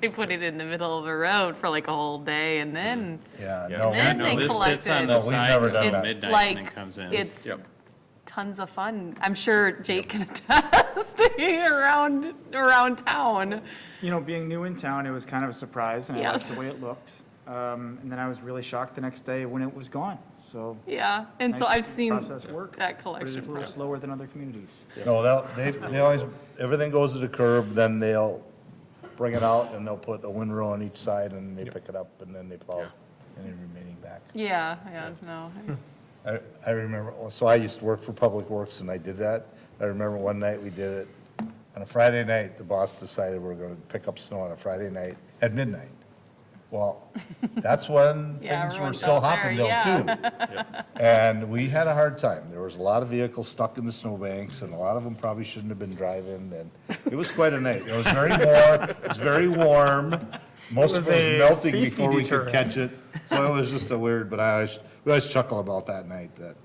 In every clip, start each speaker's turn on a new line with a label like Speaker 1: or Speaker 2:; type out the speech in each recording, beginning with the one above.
Speaker 1: They put it in the middle of the road for like a whole day and then
Speaker 2: Yeah,
Speaker 3: Yeah,
Speaker 2: no,
Speaker 3: yeah,
Speaker 1: Then
Speaker 2: we-
Speaker 3: no,
Speaker 1: they
Speaker 3: this sits on
Speaker 1: collected-
Speaker 3: the
Speaker 1: We've
Speaker 3: side
Speaker 2: never done
Speaker 3: until
Speaker 2: that.
Speaker 1: it's
Speaker 3: midnight and then
Speaker 1: like,
Speaker 3: comes in.
Speaker 1: it's
Speaker 3: Yep.
Speaker 1: tons of fun. I'm sure Jake can attest around, around town.
Speaker 4: You know, being new in town, it was kind of a surprise, and I liked
Speaker 1: Yes.
Speaker 4: the way it looked. Um, And then I was really shocked the next day when it was gone, so.
Speaker 1: Yeah, and
Speaker 4: nice
Speaker 1: so
Speaker 4: to
Speaker 1: I've
Speaker 4: see the
Speaker 1: seen
Speaker 4: Process work,
Speaker 1: that
Speaker 4: but it
Speaker 1: collection.
Speaker 4: is a little slower than other communities.
Speaker 2: no, they'll, they, they always, everything goes to the curb, then they'll bring it out and they'll put a windrow on each side and they pick it up and then they plow any remaining back.
Speaker 1: Yeah, yeah, no.
Speaker 2: I, I remember, so I used to work for Public Works and I did that. I remember one night we did it, on a Friday night, the boss decided we we're gonna pick up snow on a Friday night at midnight. Well, that's when
Speaker 1: Yeah,
Speaker 2: things were
Speaker 1: everyone's
Speaker 2: still
Speaker 1: out there,
Speaker 2: hopping too. And we had a hard time. There was a lot of vehicles stuck in the snowbanks and a lot of them probably shouldn't have been driving and it was quite a night. It was very warm, it was very warm. Most of
Speaker 4: was
Speaker 2: it
Speaker 4: a
Speaker 2: was melting
Speaker 4: safety
Speaker 2: before we could
Speaker 4: deterrent.
Speaker 2: catch it. So it was just a weird, but I always, we always chuckle about that night, that,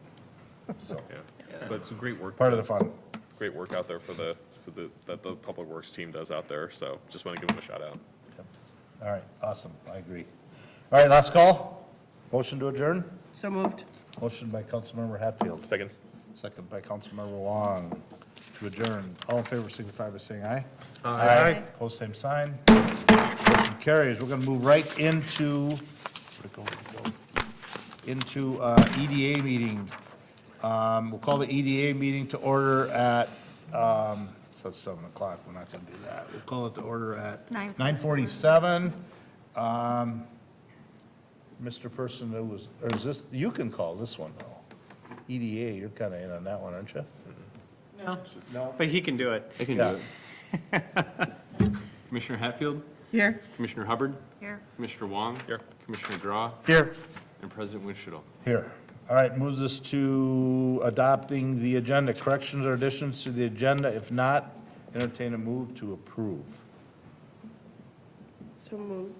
Speaker 2: so,
Speaker 5: Yeah, but it's a great work,
Speaker 2: part of the fun.
Speaker 5: great work out there for the, for the, that the Public Works team does out there, so just want to give them a shout out.
Speaker 2: All right, awesome, I agree. All right, last call. Motion to adjourn?
Speaker 6: So moved.
Speaker 2: Motion by Councilmember Hatfield,
Speaker 5: Second?
Speaker 2: second by Councilmember Wong to adjourn. All in favor signify by saying aye.
Speaker 4: Aye.
Speaker 2: Post same sign. Motion carries. We're gonna move right into, where'd it go? Where'd it go? into uh, EDA meeting. Um, We'll call the EDA meeting to order at, um, so it's seven o'clock, we're not gonna do that. We'll call it to order at
Speaker 7: Nine.
Speaker 2: nine forty-seven. Mr. Person who was, or is this, you can call this one though. EDA, you're kinda in on that one, aren't you?
Speaker 3: But he can do it.
Speaker 8: I can do
Speaker 2: Yeah.
Speaker 8: it. Commissioner Hatfield,
Speaker 6: Here.
Speaker 8: Commissioner Hubbard,
Speaker 7: Here.
Speaker 8: Commissioner Wong.
Speaker 5: Here.
Speaker 8: Commissioner Draw,
Speaker 4: Here.
Speaker 8: and President Winchell.
Speaker 2: Here. All right, moves us to adopting the agenda, corrections or additions to the agenda. If not, entertain a move to approve.
Speaker 6: So moved.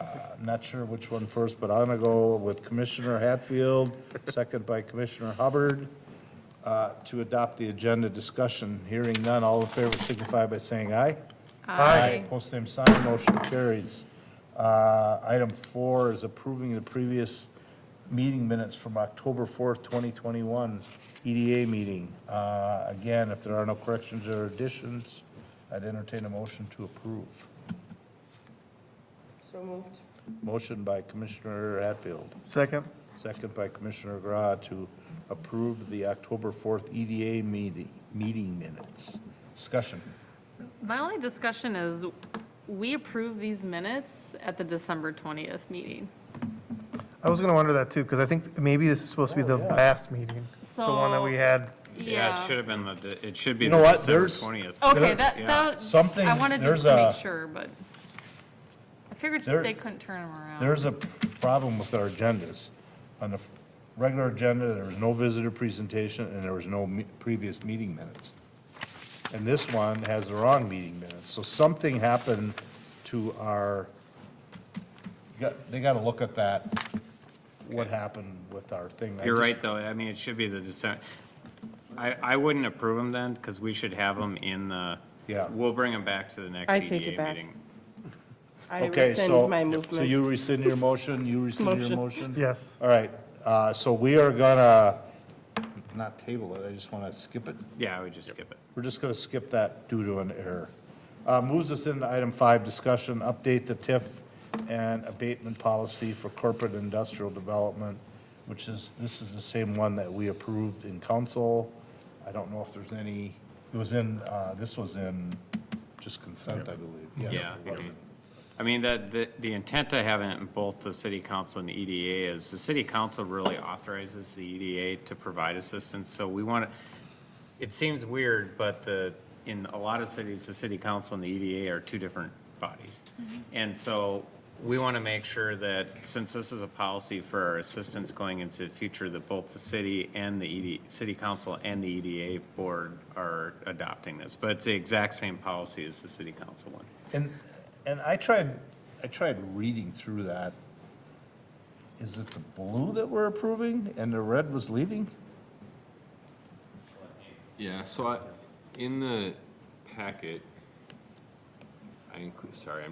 Speaker 2: I'm not sure which one first, but I'm gonna go with Commissioner Hatfield, second by Commissioner Hubbard, uh, to adopt the agenda discussion. Hearing none, all in favor signify by saying aye. Aye. Post same sign, motion carries. Uh, Item four is approving the previous meeting minutes from October 4th, 2021 EDA E meeting. Uh, Again, if there are no corrections or additions, I'd entertain a motion to approve.
Speaker 6: So moved.
Speaker 2: Motion by Commissioner Hatfield.
Speaker 4: Second.
Speaker 2: Second by Commissioner Gra to approve the October 4th EDA meeting, meeting minutes. Discussion.
Speaker 1: My only discussion is, we approved these minutes at the December 20th meeting.
Speaker 9: I was gonna wonder that too, because I think maybe this is supposed to be the last meeting, the one that we
Speaker 1: So-
Speaker 9: had.
Speaker 3: Yeah, it should have been the, de- it should be
Speaker 2: You
Speaker 3: the
Speaker 2: know what?
Speaker 3: December
Speaker 2: There's-
Speaker 3: 20th.
Speaker 6: Oh.
Speaker 1: Okay, that,
Speaker 3: Yeah.
Speaker 1: that,
Speaker 2: Something-
Speaker 1: I wanted
Speaker 2: there's
Speaker 1: just to
Speaker 2: a-
Speaker 1: make sure, but I figured
Speaker 2: There-
Speaker 1: they couldn't turn them around.
Speaker 2: There's a problem with our agendas. On the f- regular agenda, there was no visitor presentation and there was no me- previous meeting minutes. And this one has the wrong meeting minutes. So something happened to our, you got- they got to look at that, what happened with our thing. I
Speaker 3: You're
Speaker 2: just-
Speaker 3: right, though. I mean, it should be the December. I, I wouldn't approve them then, because we should have them in the,
Speaker 2: Yeah.
Speaker 3: we'll bring them back to the next
Speaker 6: I
Speaker 3: EDA
Speaker 6: take it back.
Speaker 3: meeting.
Speaker 6: I
Speaker 2: Okay, so,
Speaker 6: rescind my
Speaker 2: so
Speaker 6: movement.
Speaker 2: you rescind your motion, you rescind your
Speaker 6: Motion.
Speaker 2: motion?
Speaker 9: Yes.
Speaker 2: All right, uh, so we are gonna, not table it, I just wanna skip it.
Speaker 3: Yeah, I would just skip it.
Speaker 2: We're just gonna skip that due to an error. Uh, moves us into item five, discussion, update the TIF and abatement policy for corporate industrial development, which is, this is the same one that we approved in council. I don't know if there's any, it was in, uh, this was in just consent, I believe, yes.
Speaker 3: Yeah.
Speaker 2: it was in-
Speaker 3: I mean, the, the, the intent I have in both the city council and the EDA is the city council really authorizes the EDA to provide assistance, so we want to, it seems weird, but the, in a lot of cities, the city council and the EDA are two different bodies. And so we want to make sure that since this is a policy for our assistance going into the future, that both the city and the ED, city council and the EDA board are adopting this. But it's the exact same policy as the city council one.
Speaker 2: And, and I tried, I tried reading through that. Is it the blue that we're approving and the red was leaving?
Speaker 8: Yeah, so I, in the packet, I include, sorry, I'm